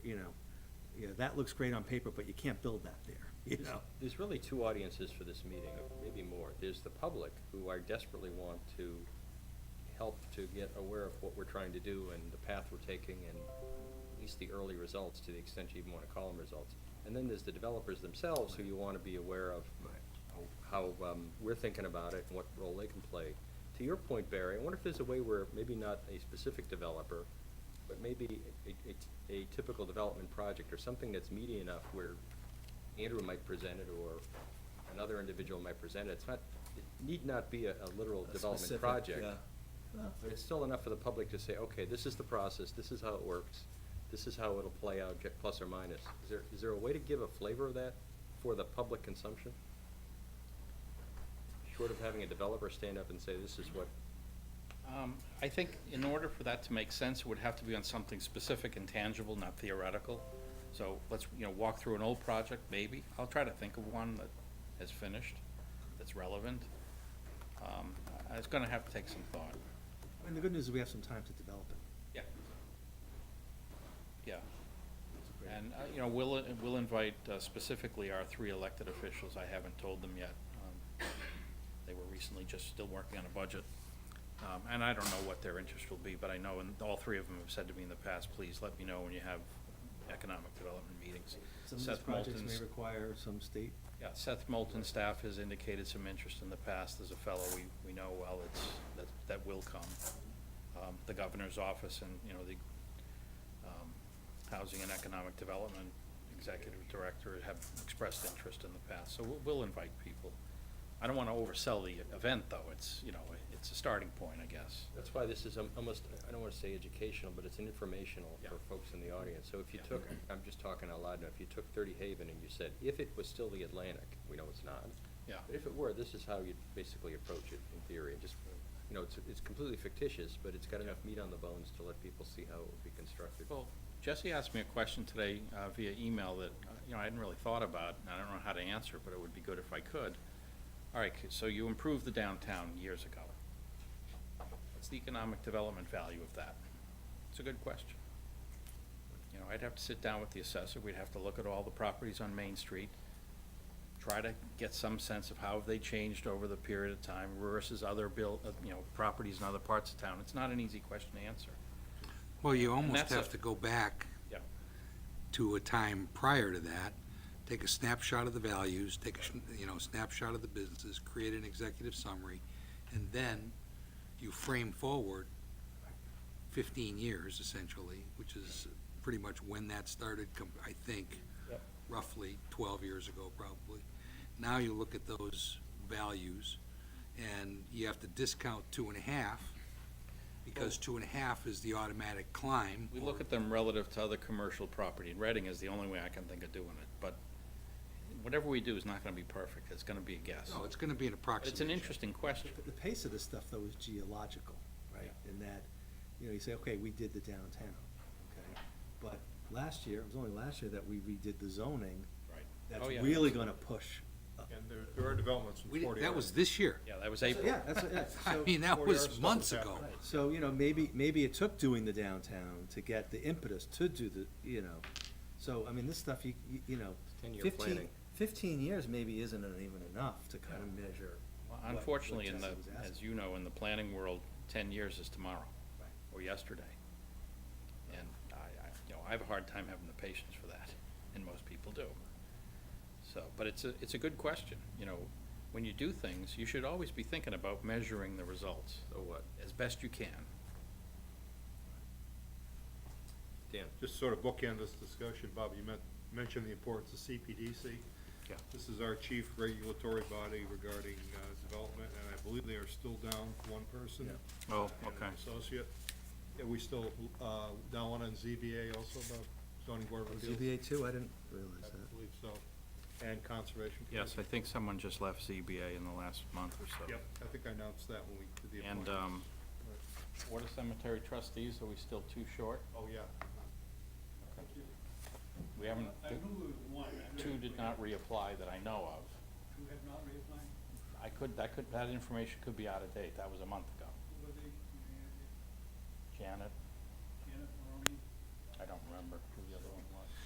you know, that looks great on paper, but you can't build that there, you know? There's really two audiences for this meeting, or maybe more. There's the public, who I desperately want to help to get aware of what we're trying to do and the path we're taking and at least the early results, to the extent you even want to call them results. And then there's the developers themselves, who you want to be aware of how um, we're thinking about it and what role they can play. To your point, Barry, I wonder if there's a way where maybe not a specific developer, but maybe a, a, a typical development project or something that's meaty enough where Andrew might present it or another individual might present it. It's not, it need not be a, a literal A development specific, project. yeah. Well, But it's still enough for the public to say, okay, this is the process, this is how it works, this is how it'll play out, get plus or minus. Is there, is there a way to give a flavor of that for the public consumption? Short of having a developer stand up and say, this is what, Um, I think in order for that to make sense, it would have to be on something specific and tangible, not theoretical. So let's, you know, walk through an old project, maybe. I'll try to think of one that has finished, that's relevant. Um, I- It's gonna have to take some thought. I mean, the good news is we have some time to develop it. Yeah. Yeah, It's a great- and, uh, you know, we'll, we'll invite uh, specifically our three elected officials. I haven't told them yet. Um, They were recently just still working on a budget. Um, And I don't know what their interest will be, but I know, and all three of them have said to me in the past, please let me know when you have economic development meetings. Some of these Seth projects may Moulton's- require some state, yeah, Seth Moulton staff has indicated some interest in the past. There's a fellow we, we know well, it's, that, that will come. Um, the governor's office and, you know, the, um, Housing and Economic Development Executive Director have expressed interest in the past, so we'll, we'll invite people. I don't wanna oversell the event, though. It's, you know, it's a starting point, I guess. that's why this is um, almost, I don't wanna say educational, but it's an informational for Yeah. folks in the audience. So if you Yeah. took, I'm just talking out loud now, if you took Thirty Haven and you said, if it was still the Atlantic, we know it's not. Yeah. But if it were, this is how you'd basically approach it in theory, and just, you know, it's, it's completely fictitious, but it's got enough meat on the bones to let people see how it would be constructed. Well, Jesse asked me a question today uh, via email that, uh, you know, I hadn't really thought about, and I don't know how to answer, but it would be good if I could. All right, so you improved the downtown years ago. What's the economic development value of that? It's a good question. You know, I'd have to sit down with the assessor, we'd have to look at all the properties on Main Street, try to get some sense of how have they changed over the period of time versus other built, you know, properties in other parts of town. It's not an easy question to answer. Well, you almost that's a- have to go back Yeah. to a time prior to that, take a snapshot of the values, take a, schn- you know, snapshot of the businesses, create an executive summary, and then you frame forward fifteen years essentially, which is pretty much when that started, com- I think, Yep. roughly twelve years ago probably. Now you look at those values, and you have to discount two and a half, because two and a half is the automatic climb. Oh. We look at them relative to other commercial property, and Reading is the only way I can think of doing it, but whatever we do is not gonna be perfect, it's gonna be a guess. No, it's gonna be an But approximation. it's an interesting question. the- the pace of this stuff though is geological, right? In that, you know, you say, okay, we did the downtown, okay? But last year, it was only last year that we redid the zoning. Right. That's Oh, yeah. really gonna push. up. And there, there are developments We from didn't- forty that was this year. Yeah, that was So, April. Yeah, that's, that's, I so- mean, that Forty hours was stuff months was ago. happening. So, you know, maybe, maybe it took doing the downtown to get the impetus to do the, you know, so, I mean, this stuff, you, you- you know, 10-year fifteen, planning. fifteen years maybe isn't even enough to kind of measure. Well, what- what Unfortunately, in the, Jesse was asking. as you know, in the planning world, ten years is tomorrow, Right. or yesterday. And I, I, you know, I have a hard time having the patience for that, and most people do. So, but it's a, it's a good question, you know, when you do things, you should always be thinking about measuring the results So what? as best you can. Dan? Just sort of bookend this discussion, Bob, you meant, mentioned the importance of CPDC. Yeah. This is our chief regulatory body regarding, uh, development, and I believe they are still down one person. Yeah. Oh, and an Associate. Are we still, uh, down one on ZBA also, Bob, zoning board Oh, of appeals? ZBA too, I didn't I realize that. believe so. And conservation. Yes, I Commission. think someone just left ZBA in the last month or so. Yep, I think I announced that when we did the And, appointments. um, Right. Board of Cemetery Trustees, are we still too short? Oh, yeah. We haven't, I knew there was one. I knew two did not reapply that I know of. Two have not reapplied, I could, that could, that information could be out of date, that was a month ago. who were they, Janet, Janet Maroney? I don't remember who the other one